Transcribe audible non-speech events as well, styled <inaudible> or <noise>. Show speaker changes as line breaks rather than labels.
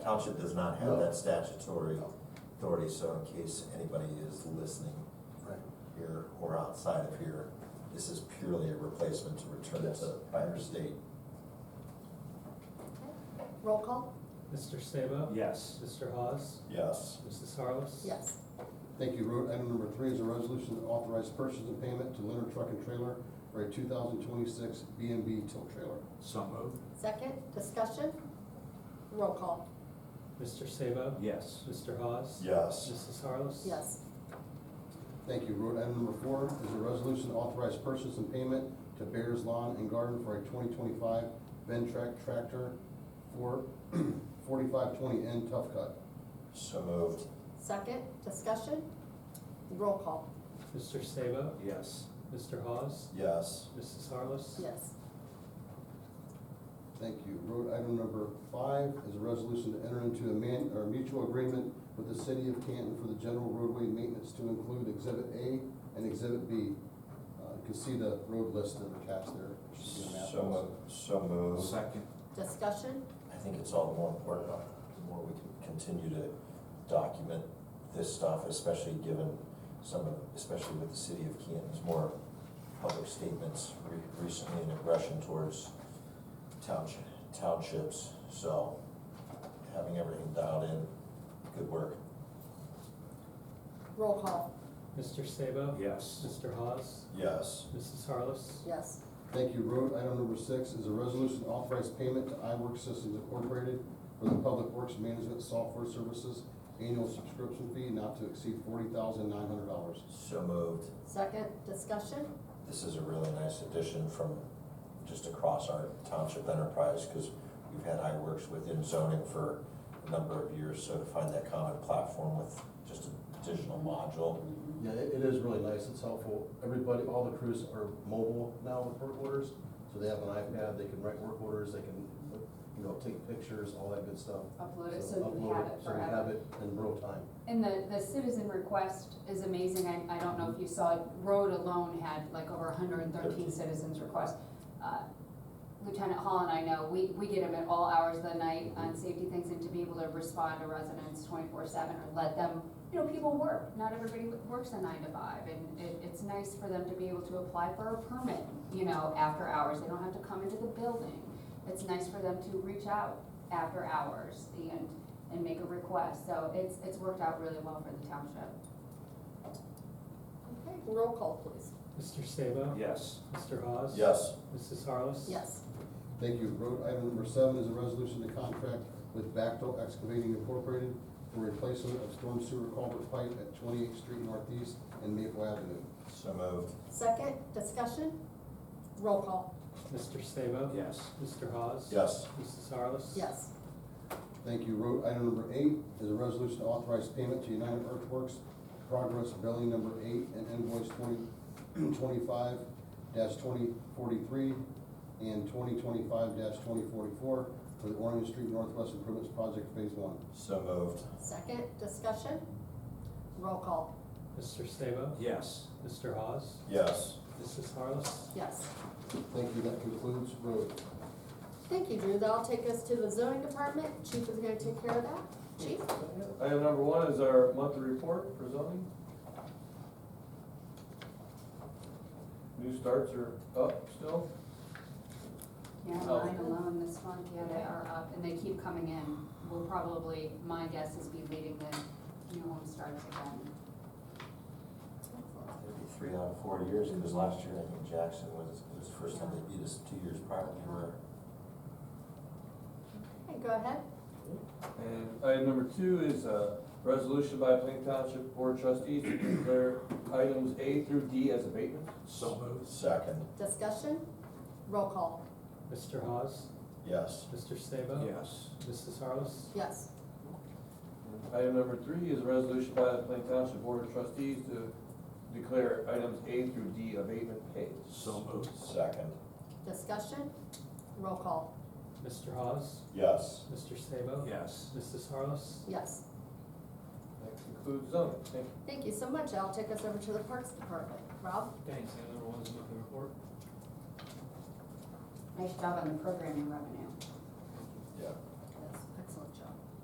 Township does not have
No.
that statutory
No.
authority, so in case anybody is listening
Right.
here or outside of here, this is purely a replacement to return
Yes.
to prior state.
Roll call?
Mr. Sabo?
Yes.
Mr. Hawes?
Yes.
Mrs. Harless?
Yes.
Thank you. Ro- Item number three is a resolution to authorize purchase and payment to Leonard Truck and Trailer for a two thousand twenty-six B and B tow trailer.
So moved.
Second, discussion? Roll call?
Mr. Sabo?
Yes.
Mr. Hawes?
Yes.
Mrs. Harless?
Yes.
Thank you. Road item number four is a resolution to authorize purchase and payment to Bears Lawn and Garden for a twenty twenty-five Ventrac tractor for <clears throat> forty-five twenty N tough cut.
So moved.
Second, discussion? Roll call?
Mr. Sabo?
Yes.
Mr. Hawes?
Yes.
Mrs. Harless?
Yes.
Thank you. Road item number five is a resolution to enter into a man, or mutual agreement with the city of Canton for the general roadway maintenance to include exhibit A and exhibit B. Uh, You can see the road list and the caps there. It should be a map
So
also.
moved. So moved.
Second.
Discussion?
I think it's all the more important, uh, the more we can continue to document this stuff, especially given some of, especially with the city of Canton's more public statements re- recently in aggression towards township, townships, so having everything dialed in, good work.
Roll call?
Mr. Sabo?
Yes.
Mr. Hawes?
Yes.
Mrs. Harless?
Yes.
Thank you. Road item number six is a resolution to authorize payment to iWork Systems Incorporated for the Public Works Management Software Services annual subscription fee not to exceed forty thousand nine hundred dollars.
So moved.
Second, discussion?
This is a really nice addition from just across our township enterprise, because we've had iWorks within zoning for a number of years, so to find that common platform with just a digital module.
Yeah, it, it is really nice, it's helpful. Everybody, all the crews are mobile now with work orders, so they have an iPad, they can write work orders, they can, you know, take pictures, all that good stuff.
upload it so you
upload
have it
So we have
forever.
it in real time.
And the, the citizen request is amazing, I, I don't know if you saw, it. Road alone had like over hundred and thirteen citizens requests. Uh, Lieutenant Hall and I know, we, we get them at all hours of the night on safety things, and to be able to respond to residents twenty-four seven, or let them, you know, people work, not everybody works a nine to five, and it, it's nice for them to be able to apply for a permit, you know, after hours, they don't have to come into the building. It's nice for them to reach out after hours and, and make a request, so it's, it's worked out really well for the township.
Okay, roll call, please.
Mr. Sabo?
Yes.
Mr. Hawes?
Yes.
Mrs. Harless?
Yes.
Thank you. Road item number seven is a resolution to contract with Backdoor Excavating Incorporated for replacement of storm sewer culvert pipe at Twenty-Eighth Street Northeast and Maple Avenue.
So moved.
Second, discussion? Roll call?
Mr. Sabo?
Yes.
Mr. Hawes?
Yes.
Mrs. Harless?
Yes.
Thank you. Road item number eight is a resolution to authorize payment to United Earthworks Progress Billing Number Eight and invoice twenty, <clears throat> twenty-five dash twenty forty-three and twenty twenty-five dash twenty forty-four for the Orange Street Northwest Improvements Project Phase One.
So moved.
Second, discussion? Roll call?
Mr. Sabo?
Yes.
Mr. Hawes?
Yes.
Mrs. Harless?
Yes.
Thank you. That concludes road.
Thank you, Drew. That'll take us to the zoning department. Chief is gonna take care of that. Chief?
Item number one is our monthly report for zoning. New starts are up still.
Yeah,
Oh.
mine alone this month, yeah, they are up, and they keep coming in. We'll probably, my guess is be leading the new home starts again.
Maybe three out of four years, because last year I think Jackson was, it was the first time they beat us two years prior. We were-
Okay, go ahead.
And item number two is a resolution by Plain Township Board of Trustees to declare items A through D as abatements.
So moved.
Second.
Discussion? Roll call?
Mr. Hawes?
Yes.
Mr. Sabo?
Yes.
Mrs. Harless?
Yes.
Item number three is a resolution by the Plain Township Board of Trustees to declare items A through D abatement paid.
So moved.
Second.
Discussion? Roll call?
Mr. Hawes?
Yes.
Mr. Sabo?
Yes.
Mrs. Harless?
Yes.
That concludes zoning. Thank you.
Thank you so much. I'll take us over to the Parks Department. Rob?
Thanks, item number one is monthly report.
Nice job on the programming revenue.
Yeah.